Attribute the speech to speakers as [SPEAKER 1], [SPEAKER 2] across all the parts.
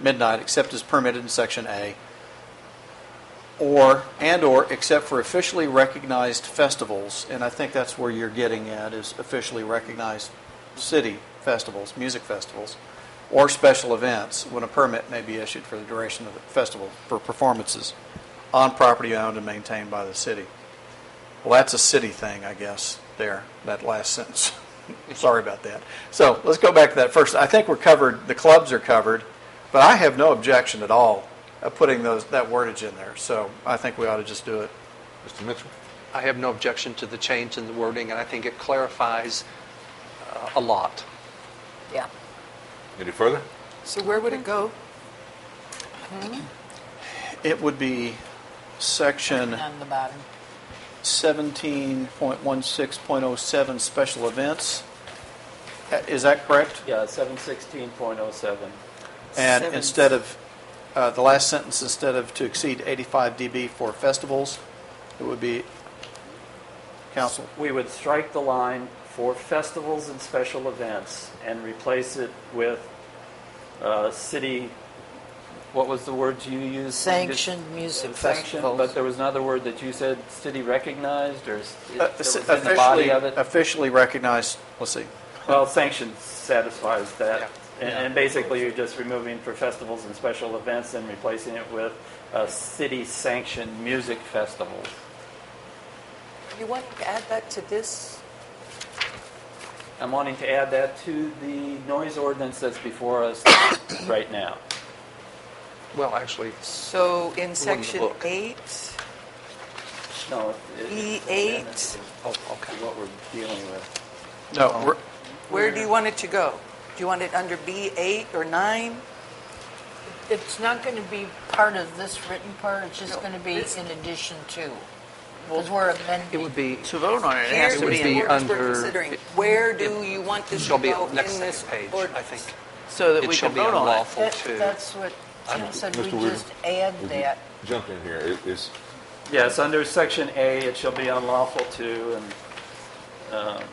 [SPEAKER 1] midnight except as permitted in Section A, or, and/or except for officially recognized festivals, and I think that's where you're getting at, is officially recognized city festivals, music festivals, or special events, when a permit may be issued for the duration of the festival for performances on property owned and maintained by the city. Well, that's a city thing, I guess, there, that last sentence. Sorry about that. So let's go back to that first. I think we're covered, the clubs are covered, but I have no objection at all of putting those, that wordage in there. So I think we ought to just do it.
[SPEAKER 2] Mr. Mitchell?
[SPEAKER 3] I have no objection to the change in the wording, and I think it clarifies uh, a lot.
[SPEAKER 4] Yeah.
[SPEAKER 2] Any further?
[SPEAKER 5] So where would it go?
[SPEAKER 1] It would be section
[SPEAKER 4] On the bottom.
[SPEAKER 1] 17.16.07, special events. Uh, Is that correct?
[SPEAKER 6] Yeah, 716.07.
[SPEAKER 1] And
[SPEAKER 5] Seven.
[SPEAKER 1] instead of, uh, the last sentence, instead of to exceed 85 dB for festivals, it would be, council,
[SPEAKER 6] We would strike the line for festivals and special events and replace it with uh, city, what was the word you used?
[SPEAKER 4] Sanctioned music
[SPEAKER 6] Sanctioned,
[SPEAKER 4] festivals.
[SPEAKER 6] but there was another word that you said, city recognized, or s- it
[SPEAKER 1] uh,
[SPEAKER 6] it was in the
[SPEAKER 1] officially,
[SPEAKER 6] body of it?
[SPEAKER 1] officially recognized, let's see,
[SPEAKER 6] Well, sanctioned satisfies that. And
[SPEAKER 1] Yeah.
[SPEAKER 6] and basically, you're just removing for festivals and special events and replacing it with uh, city sanctioned music festivals.
[SPEAKER 5] You want to add that to this?
[SPEAKER 6] I'm wanting to add that to the noise ordinance that's before us right now.
[SPEAKER 3] Well, actually,
[SPEAKER 5] So in section
[SPEAKER 3] book.
[SPEAKER 5] eight,
[SPEAKER 6] No, it-
[SPEAKER 5] E
[SPEAKER 6] it-
[SPEAKER 5] eight,
[SPEAKER 3] oh,
[SPEAKER 6] to
[SPEAKER 3] okay.
[SPEAKER 6] what we're dealing with.
[SPEAKER 1] no, we're-
[SPEAKER 5] where do you want it to go? Do you want it under B eight or nine?
[SPEAKER 4] It's not going to be part of this written part, it's just going to be in addition to, because we're
[SPEAKER 3] It
[SPEAKER 4] amending.
[SPEAKER 3] would be,
[SPEAKER 7] To vote on it, it has
[SPEAKER 5] Here
[SPEAKER 7] to
[SPEAKER 3] would
[SPEAKER 7] be
[SPEAKER 3] be
[SPEAKER 7] in
[SPEAKER 5] We're
[SPEAKER 7] order,
[SPEAKER 3] under-
[SPEAKER 5] considering. Where do you want this to
[SPEAKER 3] shall be
[SPEAKER 5] go
[SPEAKER 3] on
[SPEAKER 5] in
[SPEAKER 3] the next
[SPEAKER 5] this
[SPEAKER 3] page, I
[SPEAKER 5] ordinance?
[SPEAKER 3] think.
[SPEAKER 7] so that
[SPEAKER 3] It
[SPEAKER 7] we
[SPEAKER 3] shall
[SPEAKER 7] can
[SPEAKER 3] be
[SPEAKER 7] vote on it.
[SPEAKER 3] unlawful
[SPEAKER 4] That-
[SPEAKER 3] to,
[SPEAKER 4] That's what Tim
[SPEAKER 2] I'm-
[SPEAKER 4] said,
[SPEAKER 2] Mr.
[SPEAKER 4] we
[SPEAKER 2] Weaver,
[SPEAKER 4] just add
[SPEAKER 2] if you
[SPEAKER 4] that.
[SPEAKER 2] Jump in here. It- It's,
[SPEAKER 6] Yes, under section A, it shall be unlawful to, and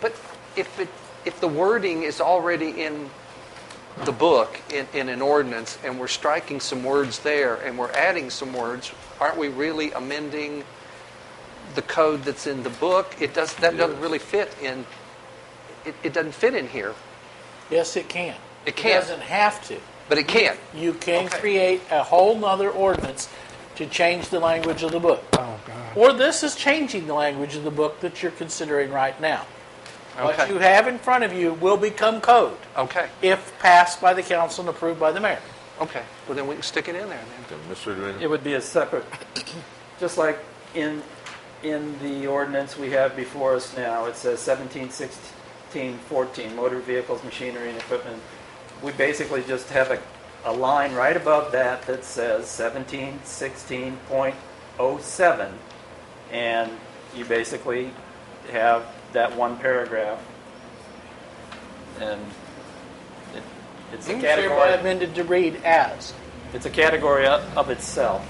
[SPEAKER 3] but if it, if the wording is already in the book, in, in an ordinance, and we're striking some words there, and we're adding some words, aren't we really amending the code that's in the book? It does, that doesn't
[SPEAKER 2] Yes.
[SPEAKER 3] really fit in, it, it doesn't fit in here,
[SPEAKER 7] Yes, it can.
[SPEAKER 3] It can.
[SPEAKER 7] doesn't have to.
[SPEAKER 3] but it can.
[SPEAKER 7] You can
[SPEAKER 3] Okay.
[SPEAKER 7] create a whole nother ordinance to change the language of the book. Oh, God. Or this is changing the language of the book that you're considering right now. What
[SPEAKER 3] Okay. Oh.
[SPEAKER 7] you have in front of you will become code
[SPEAKER 3] Okay,
[SPEAKER 7] if passed by the council and approved by the mayor.
[SPEAKER 3] okay. Well, then we can stick it in there then.
[SPEAKER 2] uh, Mr. Duane?
[SPEAKER 6] it would be a separate, just like in, in the ordinance we have before us now, it says 17, 16, 14, motor vehicles, machinery, and equipment. We basically just have a, a line right above that that says 17, 16.07. And you basically have that one paragraph. And it, it's
[SPEAKER 3] Mm-hmm.
[SPEAKER 6] a
[SPEAKER 7] Hereby
[SPEAKER 6] category,
[SPEAKER 7] amended to read as.
[SPEAKER 6] it's a category of of itself.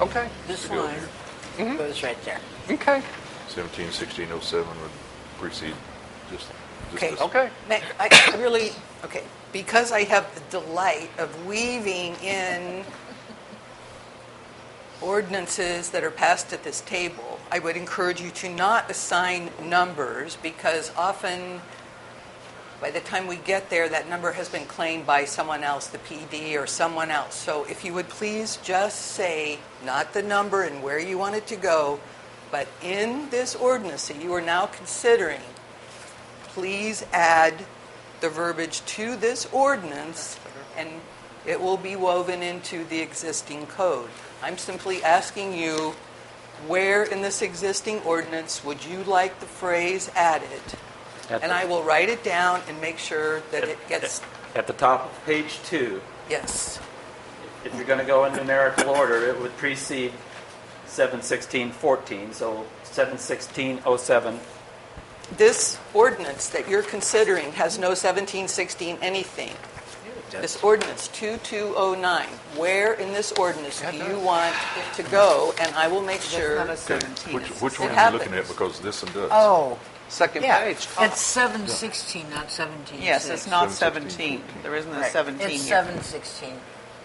[SPEAKER 3] Okay,
[SPEAKER 5] This line.
[SPEAKER 3] Mm-hmm.
[SPEAKER 4] Goes right there.
[SPEAKER 3] okay,
[SPEAKER 2] 17, 16, 07 would precede just, just
[SPEAKER 5] Okay.
[SPEAKER 2] this.
[SPEAKER 3] okay.
[SPEAKER 5] Ma- I really, okay, because I have the delight of weaving in ordinances that are passed at this table, I would encourage you to not assign numbers because often by the time we get there, that number has been claimed by someone else, the PD or someone else. So if you would please just say, not the number and where you want it to go, but in this ordinance that you are now considering, please add the verbiage to this ordinance, and it will be woven into the existing code. I'm simply asking you, where in this existing ordinance would you like the phrase added?
[SPEAKER 6] At
[SPEAKER 5] And
[SPEAKER 6] the-
[SPEAKER 5] I will write it down and make sure that it gets,
[SPEAKER 6] At the top of page two,
[SPEAKER 5] yes.
[SPEAKER 6] if you're going to go in numerical order, it would precede 71614, so 71607.
[SPEAKER 5] This ordinance that you're considering has no 1716 anything. This ordinance 2209, where in this ordinance do you want it to go? And I will make sure.
[SPEAKER 2] Okay, Which, which one
[SPEAKER 5] It
[SPEAKER 2] are you looking at?
[SPEAKER 5] happens.
[SPEAKER 2] Because this one does.
[SPEAKER 4] Oh,
[SPEAKER 3] second
[SPEAKER 4] Yeah,
[SPEAKER 3] page.
[SPEAKER 4] it's seven sixteen, not seventeen
[SPEAKER 8] Yes, it's
[SPEAKER 4] six.
[SPEAKER 8] not
[SPEAKER 2] 7, 16,
[SPEAKER 8] 17. There isn't a
[SPEAKER 4] Right.
[SPEAKER 8] 17
[SPEAKER 4] It's
[SPEAKER 8] here.
[SPEAKER 4] seven sixteen.